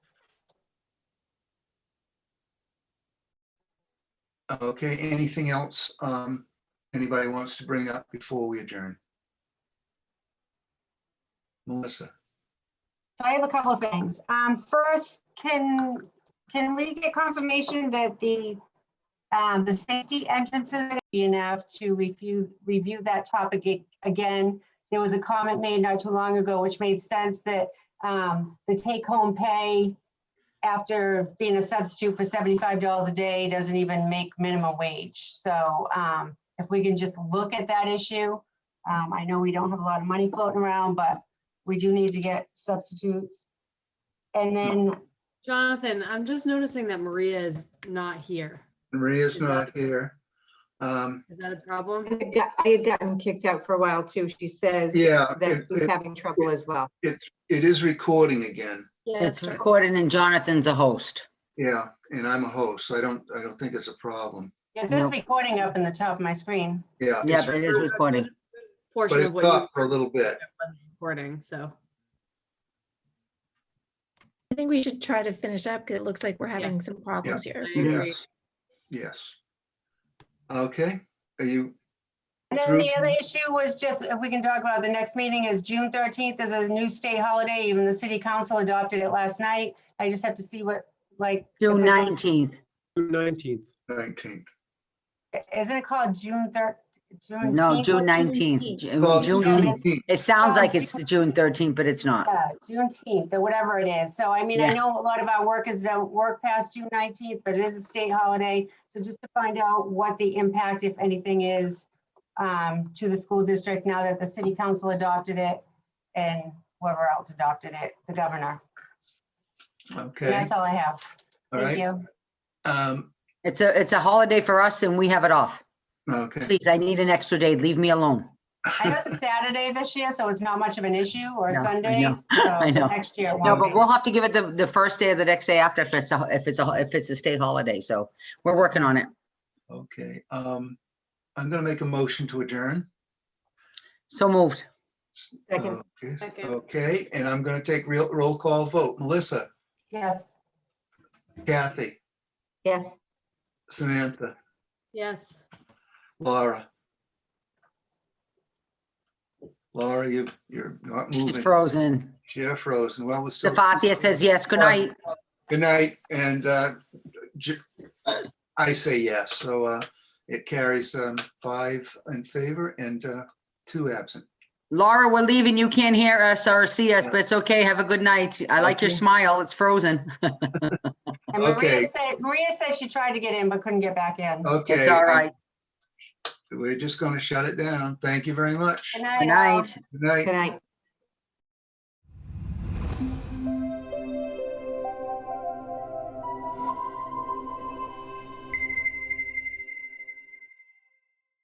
Okay, anything else um, anybody wants to bring up before we adjourn? Melissa, So I have a couple of things. Um, first, can, can we get confirmation that the, um, the safety entrances are enough to review, review that topic ag- again? There was a comment made not too long ago, which made sense that, um, the take-home pay after being a substitute for seventy-five dollars a day doesn't even make minimum wage. So, um, if we can just look at that issue, um, I know we don't have a lot of money floating around, but we do need to get substitutes. And then, Jonathan, I'm just noticing that Maria is not here. Maria's not here. Um, Is that a problem? I got- I had gotten kicked out for a while too. She says Yeah, that it- she's it- having trouble as well. it is recording again. It's recorded and Jonathan's a host. Yeah, and I'm a host, so I don't, I don't think it's a problem. it says Nope. recording up in the top of my screen. Yeah. Yeah, Uh, it's- but it is recorded. But Portion it's of what you not for a were little bit. recording, so. I think we should try to finish up because it looks like we're having some problems I here. agree. Yes, yes. Okay, are you, And then Through- the other issue was just, if we can talk about the next meeting is June thirteenth is a new state holiday. Even the city council adopted it last night. I just have to see what, like. June nineteenth. Nineteenth. 19th? Isn't it called June thir? No, June nineteenth. 19th. Well, June, it sounds Oh, like it's the June thirteenth, but it's not. Yeah, Juneteenth, or whatever it is. So I mean, I Uh, Yeah. know a lot of our workers don't work past June nineteenth, but it is a state holiday. So just to find out what the impact, if anything, is um, to the school district now that the city council adopted it and whoever else adopted it, the governor. And Okay, That's all I have. all Thank right. you. Um, It's a, it's a holiday for us and we have it off. okay. Please, I need an extra day. Leave me alone. I know it's a Saturday this year, so it's not much of an issue, or No, I Sunday. know. so I know. Next year it No, won't but be. we'll have to give it the, the first day of the next day after if it's a, if it's a, if it's a state holiday. So we're working on it. Okay, um, I'm gonna make a motion to adjourn. So moved. Second, Okay, Second. Okay, and I'm gonna take real, roll call vote. Melissa, Yes. Kathy, yes. Samantha, Yes. Laura. Laura, you, you're not She's moving. frozen. You're frozen. Well, we're still. Safathia says yes. Good night. Good night, and uh, j- I say yes, so uh, it carries um, five in favor and uh, two absent. Laura, we're leaving. You can't hear us or see us, but it's okay. Have a good night. I like your Okay. smile. It's frozen. And Maria Okay. said, Maria said she tried to get in but couldn't get back in. Okay. It's all I'm- right. We're just gonna shut it down. Thank you very much. Good Good night. all. night. Good night. Good night.